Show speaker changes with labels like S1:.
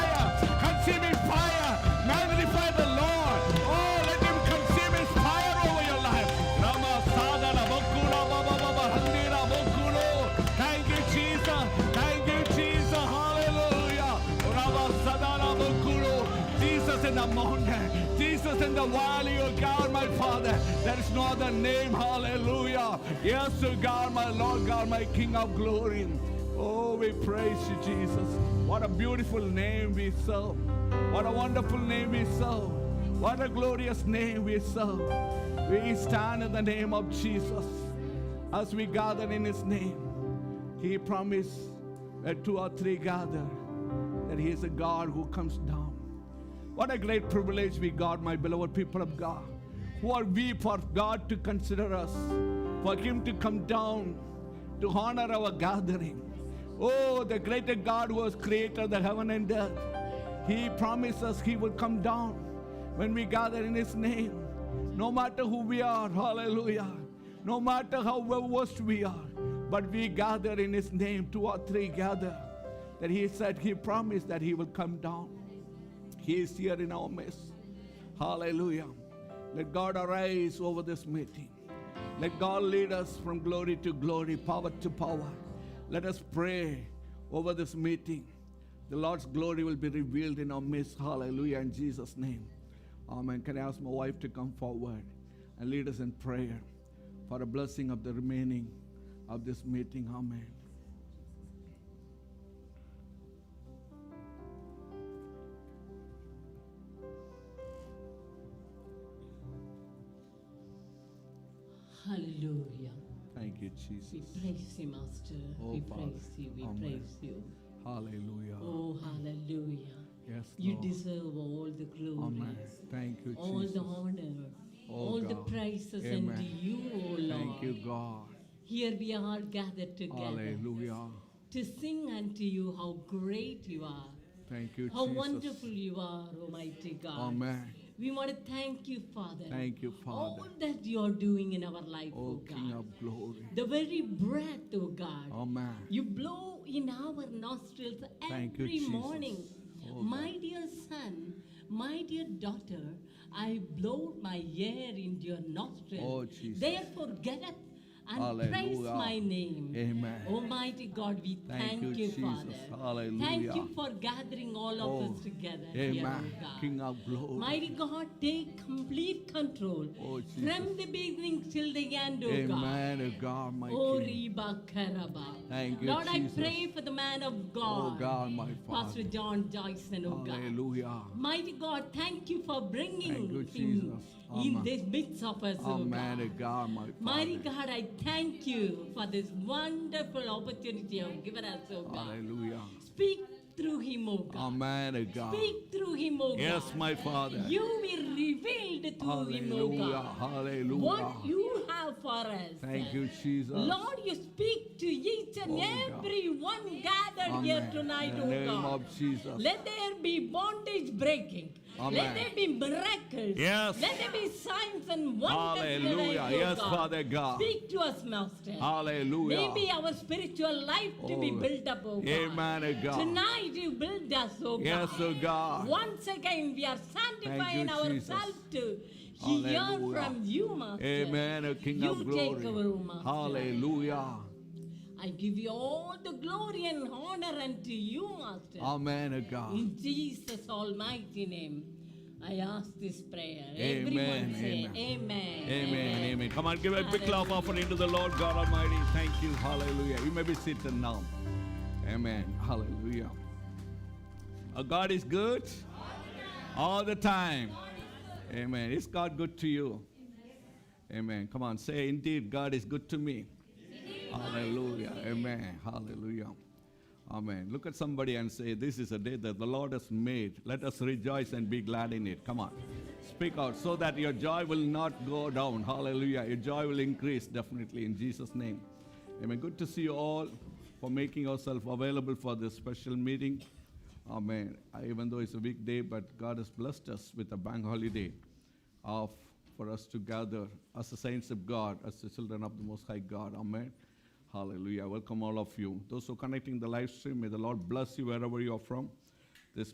S1: Oh, in the mountain, Jesus in the valley, oh God, my Father. There is no other name, hallelujah. Yes, oh God, my Lord, God, my King of glory. Oh, we praise you, Jesus. What a beautiful name we serve. What a wonderful name we serve. What a glorious name we serve. We stand in the name of Jesus as we gather in his name. He promised that two or three gather, that he is a God who comes down. What a great privilege we got, my beloved people of God. Who are we for God to consider us, for Him to come down to honor our gathering? Oh, the greater God who was creator of the heaven and earth. He promised us He will come down when we gather in His name. No matter who we are, hallelujah. No matter how well worst we are, but we gather in His name, two or three gather. That He said, He promised that He will come down. He is here in our midst. Hallelujah. Let God arise over this meeting. Let God lead us from glory to glory, power to power. Let us pray over this meeting. The Lord's glory will be revealed in our midst. Hallelujah. In Jesus' name. Amen. Can I ask my wife to come forward and lead us in prayer for a blessing of the remaining of this meeting? Amen.
S2: Hallelujah.
S1: Thank you,
S2: We
S1: Jesus.
S2: praise you, Master.
S1: Oh,
S2: we
S1: Father.
S2: praise you. We
S1: Amen.
S2: praise you.
S1: Hallelujah.
S2: Oh, hallelujah.
S1: Yes,
S2: You
S1: Lord.
S2: deserve all the glory,
S1: Oh. Amen. Thank you,
S2: all
S1: Jesus.
S2: Oh, the honor,
S1: Oh,
S2: all the
S1: God.
S2: praises
S1: Amen.
S2: unto you, O Lord.
S1: Thank you, God.
S2: Here we are gathered together
S1: Hallelujah.
S2: to sing unto you how great you are,
S1: Thank you,
S2: how
S1: Oh, Jesus.
S2: wonderful you are, Almighty God.
S1: Amen.
S2: We want to thank you, Father,
S1: Thank you,
S2: all
S1: Father.
S2: that you are doing in our life, O
S1: Oh,
S2: God.
S1: King of glory.
S2: The very breath, O God,
S1: Amen.
S2: You blow in our nostrils
S1: Thank you,
S2: every
S1: Jesus.
S2: morning.
S1: Oh,
S2: my dear son, my dear daughter, I blow my air into your nostrils.
S1: Oh, Jesus.
S2: Therefore, get up and praise
S1: Hallelujah.
S2: my name.
S1: Amen.
S2: Almighty God, we
S1: Thank
S2: thank,
S1: you,
S2: you,
S1: Jesus.
S2: Father. Thank you
S1: Hallelujah.
S2: for gathering all
S1: Oh,
S2: of us together. Here, oh
S1: Amen.
S2: God.
S1: King of glory.
S2: Mighty God, take complete control
S1: Oh, Jesus.
S2: from the beginning till the end, O God.
S1: Amen, oh God, my
S2: Oh,
S1: King.
S2: Reba Karaba.
S1: Thank you,
S2: Lord,
S1: Jesus.
S2: I pray for the man of
S1: Oh,
S2: God,
S1: God, my Father.
S2: Pastor John Joyson, oh God.
S1: Hallelujah.
S2: Mighty God, thank you for bringing
S1: Thank you,
S2: him
S1: Jesus.
S2: in
S1: Amen.
S2: this midst of us, oh
S1: Amen,
S2: God.
S1: oh God, my
S2: Mighty
S1: Father.
S2: God, I thank you for this wonderful opportunity you have given us, oh God.
S1: Hallelujah.
S2: Speak through him, oh God.
S1: Amen, oh God.
S2: Speak through him, oh
S1: Yes,
S2: God.
S1: my Father.
S2: You will reveal to him, oh
S1: Hallelujah.
S2: God,
S1: Hallelujah.
S2: what you have for us.
S1: Thank you, Jesus.
S2: Lord, you speak to each and
S1: Oh, God.
S2: every one gathered
S1: Amen.
S2: here tonight,
S1: In the
S2: oh
S1: name
S2: God.
S1: of Jesus.
S2: Let there be bondage breaking.
S1: Amen.
S2: Let there be miracles.
S1: Yes.
S2: Let there be signs and wonders.
S1: Hallelujah.
S2: tonight, oh
S1: Yes,
S2: God.
S1: Father God.
S2: Speak to us, Master.
S1: Hallelujah.
S2: Maybe our spiritual life to be
S1: Oh,
S2: built up, oh God.
S1: Amen, oh God.
S2: Tonight you build us, oh
S1: Yes,
S2: God.
S1: oh God.
S2: Once again, we are sanctifying
S1: you,
S2: ourselves to hear
S1: Hallelujah.
S2: from you, Master.
S1: Amen, O King
S2: You
S1: of
S2: take
S1: glory.
S2: over, O Master.
S1: Hallelujah.
S2: I give you all the glory and honor unto you, Master.
S1: Amen, O God.
S2: In Jesus' almighty name, I ask this prayer.
S1: Amen,
S2: Everyone say
S1: amen.
S2: amen.
S1: Amen, amen. Come on, give a quick love offering to the Lord God Almighty. Thank you. Hallelujah. You may be seated now. Amen. Hallelujah. Our God is good all the time. Amen. Is God good to you? Amen. Come on, say, indeed, God is good to me. Hallelujah. Amen. Hallelujah. Amen. Look at somebody and say, This is a day that the Lord has made. Let us rejoice and be glad in it. Come on. Speak out so that your joy will not go down. Hallelujah. Your joy will increase definitely in Jesus' name. Amen. Good to see you all for making yourself available for this special meeting. Amen. I- Even though it's a weekday, but God has blessed us with a bank holiday of for us to gather as the saints of God, as the children of the Most High God. Amen. Hallelujah. Welcome all of you. Those who are connecting the live stream, may the Lord bless you wherever you are from.